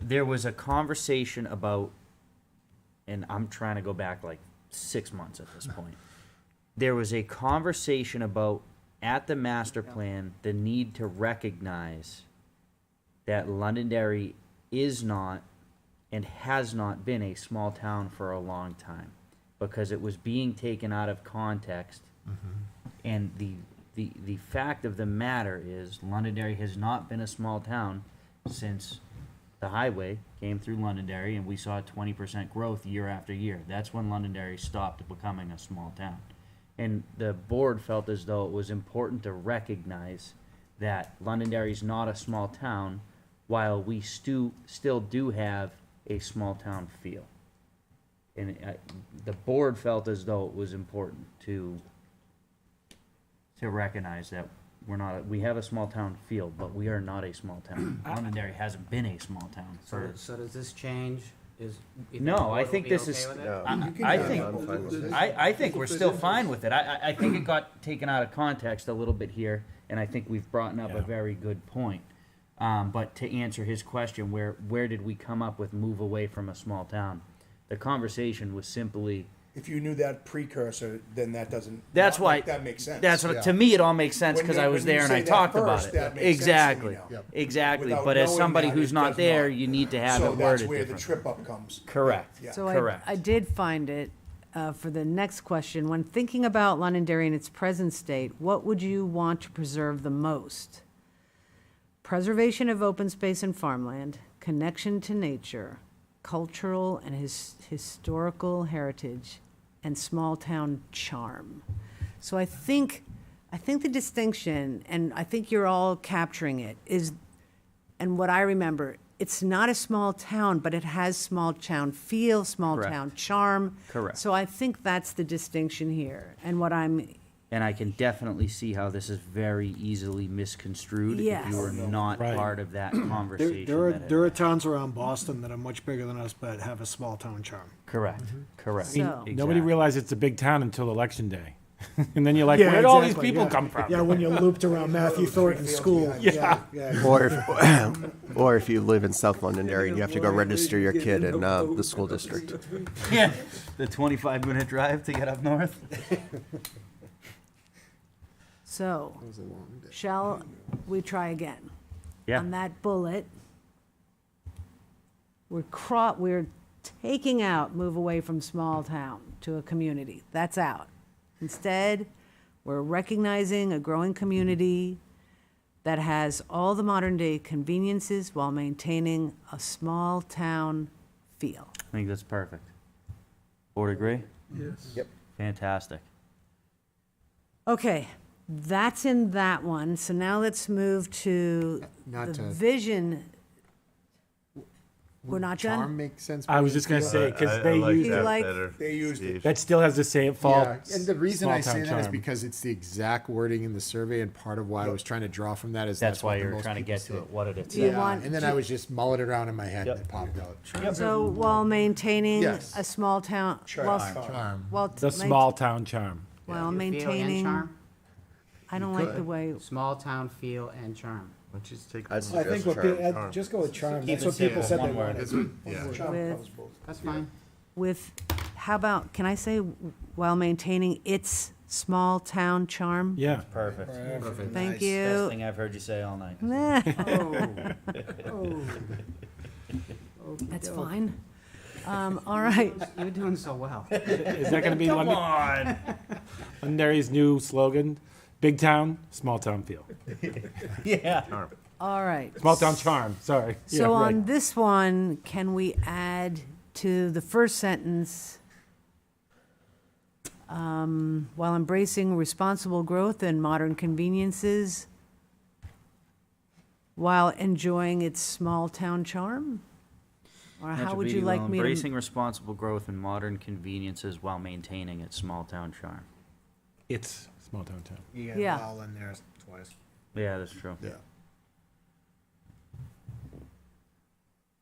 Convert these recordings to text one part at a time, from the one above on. there was a conversation about, and I'm trying to go back like six months at this point. There was a conversation about at the master plan, the need to recognize that Londonderry is not and has not been a small town for a long time because it was being taken out of context. And the, the, the fact of the matter is Londonderry has not been a small town since the highway came through Londonderry and we saw 20% growth year after year. That's when Londonderry stopped becoming a small town. And the board felt as though it was important to recognize that Londonderry is not a small town while we stu- still do have a small town feel. And uh, the board felt as though it was important to to recognize that we're not, we have a small town feel, but we are not a small town. Londonderry hasn't been a small town So, for, so does this change? Is? you No, the board I will think be this okay is- with it? Um, I, can I do it. think, I'm fine with it. I, I think we're still fine with it. I, I, I think it got taken out of context a little bit here, and I think we've brought up a very good point. Um, but to answer his question, where, where did we come up with move away from a small town? The conversation was simply, If you knew that precursor, then that doesn't. that's that- why. That makes sense. That's what, to me, it all makes sense, When because you- I was when you there and I say that talked first, about that it. makes sense to me now. Exactly, Yep. exactly. Without But as knowing somebody that, who's it not does there, not. you need to have So it worded that's where the differently. trip up comes. Correct. Yeah. So I, Correct. I did find it, uh, for the next question, when thinking about Londonderry in its present state, what would you want to preserve the most? Preservation of open space and farmland, connection to nature, cultural and his, historical heritage, and small-town charm. So I think, I think the distinction, and I think you're all capturing it, is and what I remember, it's not a small town, but it has small town feel, small Correct. town charm. Correct. So I think that's the distinction here. And what I'm, And I can definitely see how this is very easily misconstrued if Yes. you were not Right. part of that There, conversation. there are, that it- there are towns around Boston that are much bigger than us, but have a small town charm. Correct, correct. Mm-hmm. So- Nobody Nobody Exactly. realized it's a big town until election day. and then you're like, Yeah, where did all these exactly, people yeah. come from? Yeah, when you're looped around Matthew Thornton School. Yeah. yeah. Or if, or if you live in South Londonderry and you have to go register your kid in uh, the school district. Yeah, the twenty-five minute drive to get up north. so, shall we try again? Yeah. On that bullet, we're cro, we're taking out move away from small town to a community. That's out. Instead, we're recognizing a growing community that has all the modern day conveniences while maintaining a small town feel. I think that's perfect. Board agree? Yes. Yep. Fantastic. Okay, that's in that one. So now let's move to Not the to- vision. We're not Charm done? makes sense. I was just going to say, because they use that. that. like- They used it. still has the same fall. Yeah, and the reason I say that is charm. because it's the exact wording in the survey, and part of why I was trying to draw from that is That's what why the you're most trying to people get to say. it, what it is. Do you Yeah, want- and then I was just mulling it around in my head and it popped out. So while maintaining Yes. a small town, while, Charm. while. the main- small town charm. While Feel and maintaining, charm? I don't like the way, Small town feel and charm. Why don't you just take? I'd the- I think what, Charm, pe- uh, charm. just go with charm. Keep That's it what people simple, said they one word. wanted. Yeah. Charm With- covers both. That's fine. with, how about, can I say while maintaining its small town charm? Yeah. Perfect. Thank Best you. Oh. thing I've heard you say all night. Oh. That's fine. Um, all right. You're doing so well. Is that going to be Come London, on. Londonderry's new slogan? Big town, small town feel. Yeah. All right. Small town charm, sorry. So yeah, right. on this one, can we add to the first sentence, um, while embracing responsible growth and modern conveniences, while enjoying its small-town charm? Or how would you like me Embracing to? responsible growth and modern conveniences while maintaining its small-town charm. It's small town charm. You got Yeah. vowel in there twice. Yeah, that's true. Yeah.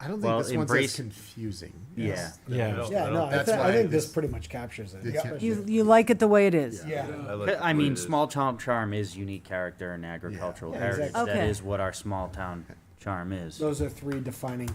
I don't Well, think this one's embrace- as confusing. Yeah. Yeah. Yeah, no, I That's think, I why think this this- pretty much captures it. Yeah. especially- You, you like it the way it is? Yeah. like the I way mean, it is. small town charm is unique character and agricultural Yeah, heritage. exactly. That Okay. is what our small town charm is. Those are three defining